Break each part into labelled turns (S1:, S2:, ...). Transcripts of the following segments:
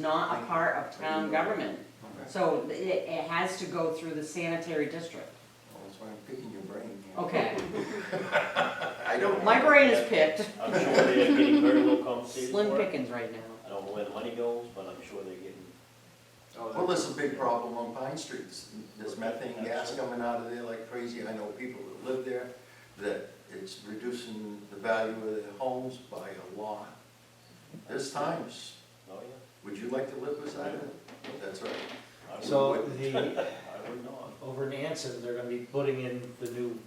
S1: not a part of town government.
S2: Okay.
S1: So it, it has to go through the sanitary district.
S2: Well, that's why I'm picking your brain. you know.
S1: Okay,
S2: I don't.
S1: my brain is picked,
S3: I'm sure they're getting very little compensated
S1: slim
S3: for it.
S1: pickings right now.
S3: I don't know where the money goes, but I'm sure they're getting,
S2: Well, there's a big problem on Pine Streets. There's methane gas coming out of there like crazy. I know people that live there, that it's reducing the value of their homes by a lot. There's times,
S3: oh yeah.
S2: would you like to live beside it? That's right.
S3: I would-
S4: So the,
S3: I would not.
S4: over in Anson, they're gonna be putting in the new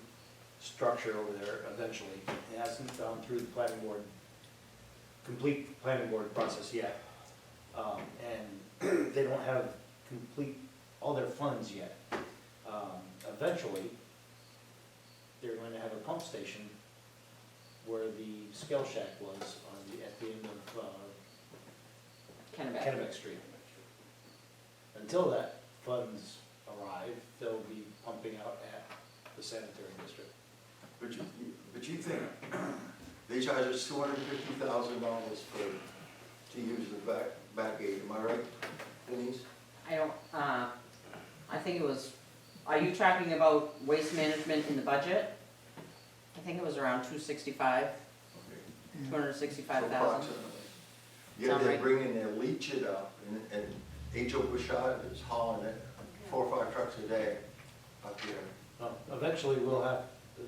S4: structure over there eventually. It hasn't gone through the planning board, complete planning board process yet. Um, and they don't have complete, all their funds yet. Um, eventually, they're going to have a pump station where the scale shack was on the, at the end of, uh,
S1: Kind of bad.
S4: Kennebec Street. Until that funds arrive, they'll be pumping out at the sanitary district.
S2: But you, but you think, they charge us two hundred and fifty thousand dollars for, to use the back, back gate, am I right, Denise?
S1: I don't, uh, I think it was, are you talking about waste management in the budget? I think it was around two sixty-five,
S2: Okay.
S5: Mm.
S1: two hundred sixty-five
S2: So
S1: thousand.
S2: approximately. Yeah,
S1: Sound
S2: they're
S1: right.
S2: bringing their leach it up, and, and H.O. Bouchard is hauling it, four or five trucks a day up there.
S4: Um, Eventually, we'll have,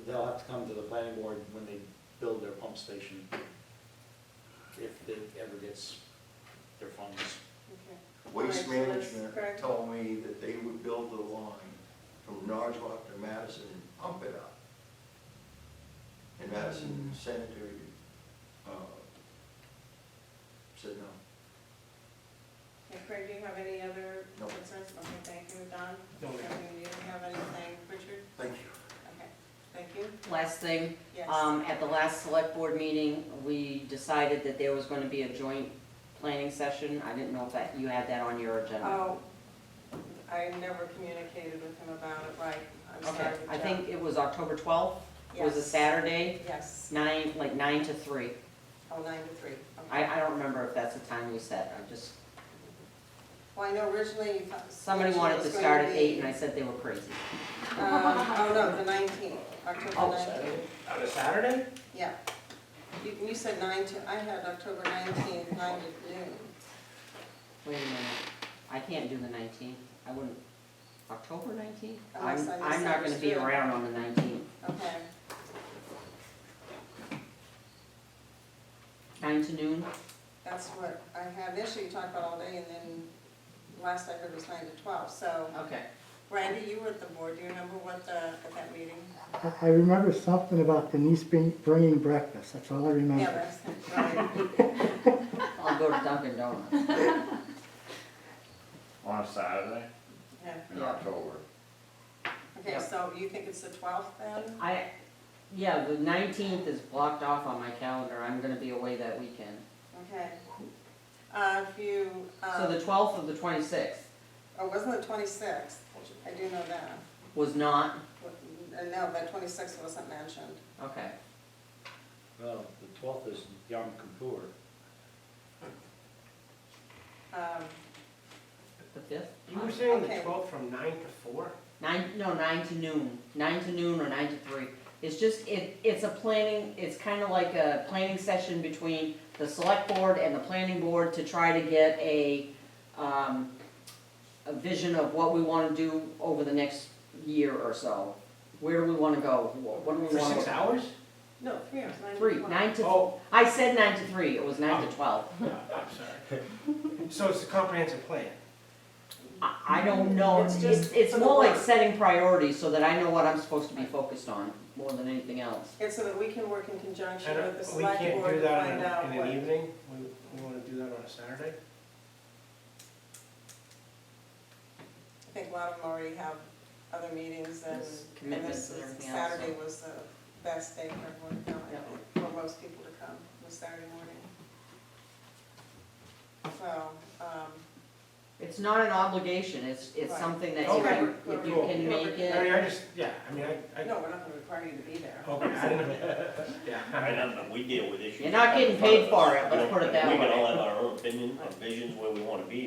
S4: they'll have to come to the planning board when they build their pump station, if it ever gets their funds.
S2: Waste
S5: Alright, so that's
S2: Management
S5: correct.
S2: told me that they would build the line from Norwood to Madison and pump it up. And Madison sanitary, uh, said no.
S5: Okay, Craig, do you have any other
S2: No.
S5: concerns? Okay, thank you, Don.
S4: No, ma'am.
S5: Kevin, You didn't have anything, Richard?
S2: Thank you.
S5: Okay, thank you,
S1: Last thing,
S5: yes.
S1: Um, at the last select board meeting, we decided that there was gonna be a joint planning session. I didn't know if that, you had that on your agenda.
S5: Oh, I never communicated with him about it, right, I'm
S1: Okay,
S5: sorry.
S1: I
S5: Joe.
S1: think it was October twelfth, was a
S5: Yes.
S1: Saturday,
S5: Yes,
S1: nine, like nine to three.
S5: oh, nine to three,
S1: I,
S5: okay.
S1: I don't remember if that's the time we set, I just,
S5: Well, I know originally. you thought-
S1: somebody
S5: originally it
S1: wanted to
S5: was going
S1: start at
S5: be,
S1: eight and I said they were crazy.
S5: um, Oh, no, the nineteenth,
S1: Oh,
S5: October nineteenth,
S3: On a Saturday?
S5: yeah. You, you said nine to, I had October nineteenth, nine to noon.
S1: Wait a minute, I can't do the nineteenth, I wouldn't, October nineteenth? I'm,
S5: Unless I
S1: I'm not gonna be
S5: Oh, misunderstood.
S1: around on the nineteenth,
S5: Okay,
S1: nine to noon,
S5: that's what I have initially talked about all day, and then last I heard was nine to twelve, so.
S1: okay.
S5: Randy, you were at the board, do you remember what the, at that meeting?
S6: I- I remember something about Denise bring- bringing breakfast, that's all I
S1: Mm.
S5: Yeah,
S6: remember.
S5: that's, right.
S1: I'll go to Dunkin' Donuts.
S7: On a Saturday
S5: Yeah.
S7: in October.
S5: Okay, so you think it's the twelfth then?
S1: I, yeah, the nineteenth is blocked off on my calendar, I'm gonna be away that weekend.
S5: Okay. Uh, if you,
S1: So the
S5: um,
S1: twelfth of the twenty-sixth
S5: oh, wasn't the twenty-sixth? I do know that.
S1: was not,
S5: What- uh, No, that twenty-sixth wasn't mentioned.
S1: okay,
S4: Well, the twelfth is Yom Kippur.
S5: Um,
S1: the fifth?
S8: You were saying the
S5: Okay.
S8: twelfth from nine to four?
S1: Nine, no, nine to noon, nine to noon or nine to three. It's just, it, it's a planning, it's kinda like a planning session between the select board and the planning board to try to get a, um, a vision of what we wanna do over the next year or so. Where do we wanna go? What what do we
S8: For
S1: wanna?
S8: six hours?
S5: No, three hours, nine to
S1: Three,
S5: one.
S1: nine to,
S8: Oh,
S1: I said nine to three, it was nine to twelve.
S8: so it's a comprehensive plan.
S1: I, I don't know,
S5: Mm,
S1: it's,
S5: It's just
S1: it's
S5: for the
S1: more like
S5: work.
S1: setting priorities so that I know what I'm supposed to be focused on, more than anything else.
S5: And so that we can work in conjunction
S8: And
S5: with the
S8: we
S5: select
S8: can't
S5: board
S8: do
S5: to
S8: that
S5: find
S8: on
S5: out
S8: a- in
S5: what.
S8: an evening? We, we wanna do that on a Saturday?
S5: I think a lot of them already have other meetings and.
S1: There's
S5: and
S1: commitments
S5: this
S1: and
S5: is-
S1: everything else, so-
S5: Saturday was the best day for everyone to come, I
S1: Yeah.
S5: think, for most people to come, was Saturday morning. So, um,
S1: It's it's not an obligation, it's, it's
S5: Right.
S1: something that
S8: Okay,
S1: you, if you
S8: cool.
S1: can make
S8: I mean,
S1: it,
S8: I just, yeah, I mean, I, Oh, I,
S5: No, we're not gonna require you to be there.
S8: okay, I didn't, yeah.
S3: I don't know, we deal with issues.
S1: You're not getting paid for it, let's put it that
S3: We can
S1: way.
S3: all have our own opinion, and visions where we wanna be,